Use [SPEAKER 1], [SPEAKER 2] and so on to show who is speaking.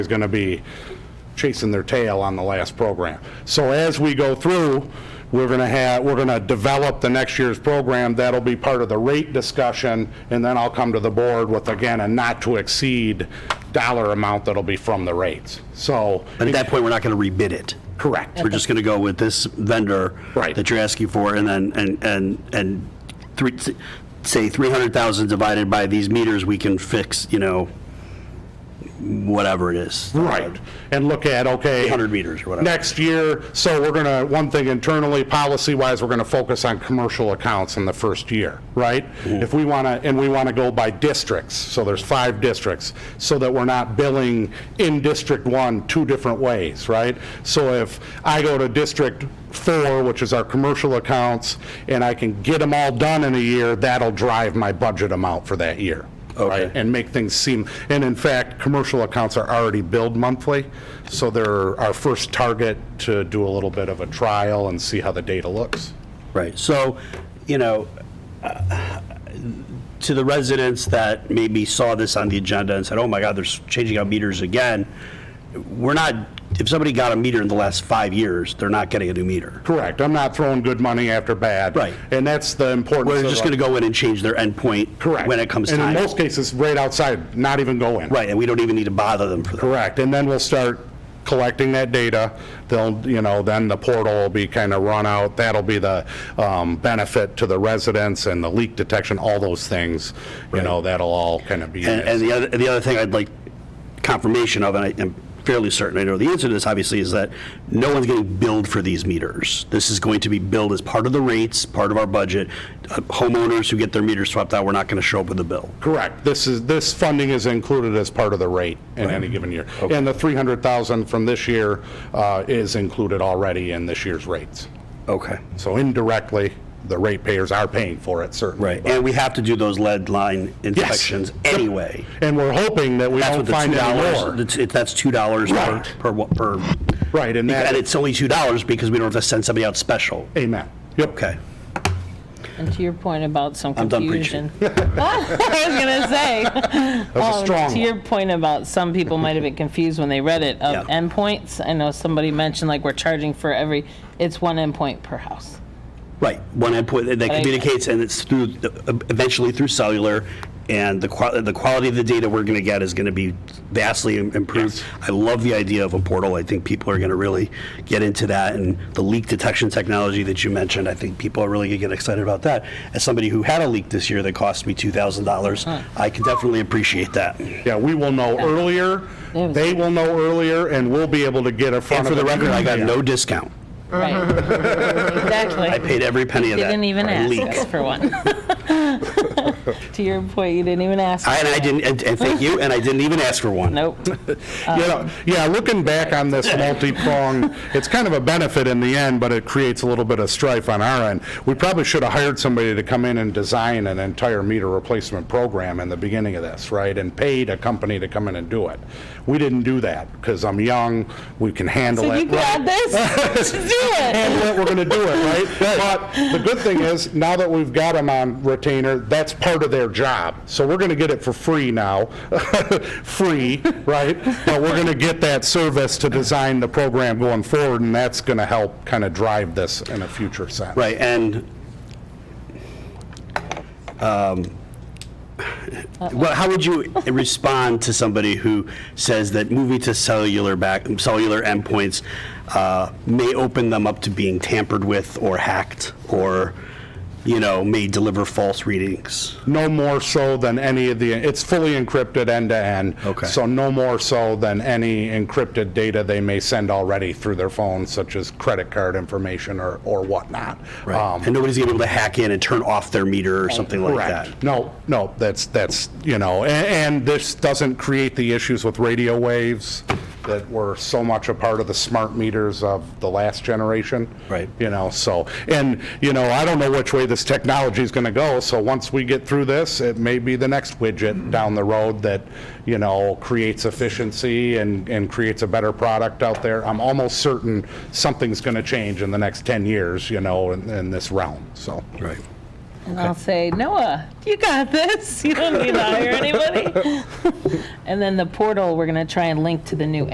[SPEAKER 1] is going to be chasing their tail on the last program. So as we go through, we're going to have, we're going to develop the next year's program. That'll be part of the rate discussion, and then I'll come to the board with, again, a not-to-exceed dollar amount that'll be from the rates. So,
[SPEAKER 2] And at that point, we're not going to rebid it.
[SPEAKER 1] correct.
[SPEAKER 2] We're just going to go with this vendor.
[SPEAKER 1] Right.
[SPEAKER 2] That you're asking for, and then, and, and, and three, say 300,000 divided by these meters, we can fix, you know, whatever it is.
[SPEAKER 1] Right, and look at, okay.
[SPEAKER 2] 800 meters or whatever.
[SPEAKER 1] Next year, so we're going to, one thing internally, policy-wise, we're going to focus on commercial accounts in the first year, right?
[SPEAKER 2] Mm-hmm.
[SPEAKER 1] If we want to, and we want to go by districts, so there's five districts, so that we're not billing in District 1 two different ways, right? So if I go to District 4, which is our commercial accounts, and I can get them all done in a year, that'll drive my budget amount for that year.
[SPEAKER 2] Okay.
[SPEAKER 1] right? and make things seem, and in fact, commercial accounts are already billed monthly, so they're our first target to do a little bit of a trial and see how the data looks.
[SPEAKER 2] Right, so, you know, uh, to the residents that maybe saw this on the agenda and said, oh my God, they're changing out meters again, we're not, if somebody got a meter in the last five years, they're not getting a new meter.
[SPEAKER 1] Correct, I'm not throwing good money after bad.
[SPEAKER 2] Right.
[SPEAKER 1] And that's the importance
[SPEAKER 2] We're
[SPEAKER 1] of
[SPEAKER 2] just
[SPEAKER 1] a-
[SPEAKER 2] going to go in and change their endpoint.
[SPEAKER 1] Correct.
[SPEAKER 2] When it comes
[SPEAKER 1] And in
[SPEAKER 2] time.
[SPEAKER 1] most cases, right outside, not even go in.
[SPEAKER 2] Right, and we don't even need to bother them for that.
[SPEAKER 1] Correct, and then we'll start collecting that data, they'll, you know, then the portal will be kind of run out, that'll be the um, benefit to the residents and the leak detection, all those things, you know, that'll all kind of be.
[SPEAKER 2] And, and the other, the other thing I'd like confirmation of, and I am fairly certain I know the answer to this, obviously, is that no one's getting billed for these meters. This is going to be billed as part of the rates, part of our budget. Uh, Homeowners who get their meters swapped out, we're not going to show up with a bill.
[SPEAKER 1] Correct. This is, this funding is included as part of the rate in any given year. And the 300,000 from this year uh, is included already in this year's rates.
[SPEAKER 2] Okay.
[SPEAKER 1] So indirectly, the ratepayers are paying for it, certainly.
[SPEAKER 2] Right, and we have to do those lead line inspections anyway.
[SPEAKER 1] And we're hoping that we
[SPEAKER 2] That's
[SPEAKER 1] don't
[SPEAKER 2] what the
[SPEAKER 1] find out
[SPEAKER 2] $2,
[SPEAKER 1] more.
[SPEAKER 2] that's- it- that's $2
[SPEAKER 1] Right.
[SPEAKER 2] per- per, wa- per.
[SPEAKER 1] Right, and
[SPEAKER 2] And
[SPEAKER 1] that,
[SPEAKER 2] it's only $2 because we don't have to send somebody out special.
[SPEAKER 1] amen. Yep.
[SPEAKER 2] Okay.
[SPEAKER 3] And to your point about some
[SPEAKER 2] I'm done
[SPEAKER 3] confusion. I was gonna say.
[SPEAKER 1] That was a
[SPEAKER 3] um,
[SPEAKER 1] strong
[SPEAKER 3] To your
[SPEAKER 1] one.
[SPEAKER 3] point about some people might have been confused when they read it of
[SPEAKER 2] Yeah.
[SPEAKER 3] endpoints. I know somebody mentioned like we're charging for every, it's one endpoint per house.
[SPEAKER 2] Right, one endpoint that
[SPEAKER 3] I-
[SPEAKER 2] communicates, and it's through, eventually through cellular, and the qual, the quality of the data we're gonna get is gonna be vastly im- improved. I love the idea of a portal, I think people are gonna really get into that, and the leak detection technology that you mentioned, I think people are really gonna get excited about that. As somebody who had a leak this year that cost me two thousand dollars, I can definitely appreciate that.
[SPEAKER 1] Yeah, we will know earlier,
[SPEAKER 3] was-
[SPEAKER 1] they will know earlier, and we'll be able to get in
[SPEAKER 2] And
[SPEAKER 1] front
[SPEAKER 2] for
[SPEAKER 1] of
[SPEAKER 2] the
[SPEAKER 1] it.
[SPEAKER 2] record, I got no discount,
[SPEAKER 3] Right. Exactly.
[SPEAKER 2] I paid every penny of that.
[SPEAKER 3] Didn't even
[SPEAKER 2] for a
[SPEAKER 3] ask
[SPEAKER 2] leak.
[SPEAKER 3] us for one. To your point, you didn't even ask.
[SPEAKER 2] I- And I
[SPEAKER 3] for
[SPEAKER 2] didn't, and, and thank you, and I didn't even ask for one.
[SPEAKER 3] one. Nope.
[SPEAKER 1] You know, yeah, looking back on this multi-prong, it's kind of a benefit in the end, but it creates a little bit of strife on our end. We probably should have hired somebody to come in and design an entire meter replacement program in the beginning of this, right? And paid a company to come in and do it. We didn't do that, because I'm young, we can handle
[SPEAKER 3] So
[SPEAKER 1] it.
[SPEAKER 3] you
[SPEAKER 1] right?
[SPEAKER 3] got this? Let's do it.
[SPEAKER 1] handle it, we're gonna do it, right? But the good thing is, now that we've got them on retainer, that's part of their job. So we're gonna get it for free now, free, right? But we're gonna get that service to design the program going forward, and that's gonna help kind of drive this in a future sense.
[SPEAKER 2] Right, and, um, well, how would you respond to somebody who says that moving to cellular back, cellular endpoints uh, may open them up to being tampered with or hacked, or, you know, may deliver false readings?
[SPEAKER 1] No more so than any of the, it's fully encrypted end-to-end.
[SPEAKER 2] Okay.
[SPEAKER 1] So no more so than any encrypted data they may send already through their phone, such as credit card information or, or whatnot. Um,
[SPEAKER 2] And nobody's gonna be able to hack in and turn off their meter or something like that?
[SPEAKER 1] Correct. No, no, that's, that's, you know, a- and this doesn't create the issues with radio waves that were so much a part of the smart meters of the last generation.
[SPEAKER 2] Right.
[SPEAKER 1] You know, so, and, you know, I don't know which way this technology is going to go, so once we get through this, it may be the next widget down the road that, you know, creates efficiency and, and creates a better product out there. I'm almost certain something's going to change in the next 10 years, you know, in, in this realm, so.
[SPEAKER 2] Right.
[SPEAKER 3] And I'll say, Noah, you got this. You don't need to hire anybody. and then the portal, we're going to try and link to the new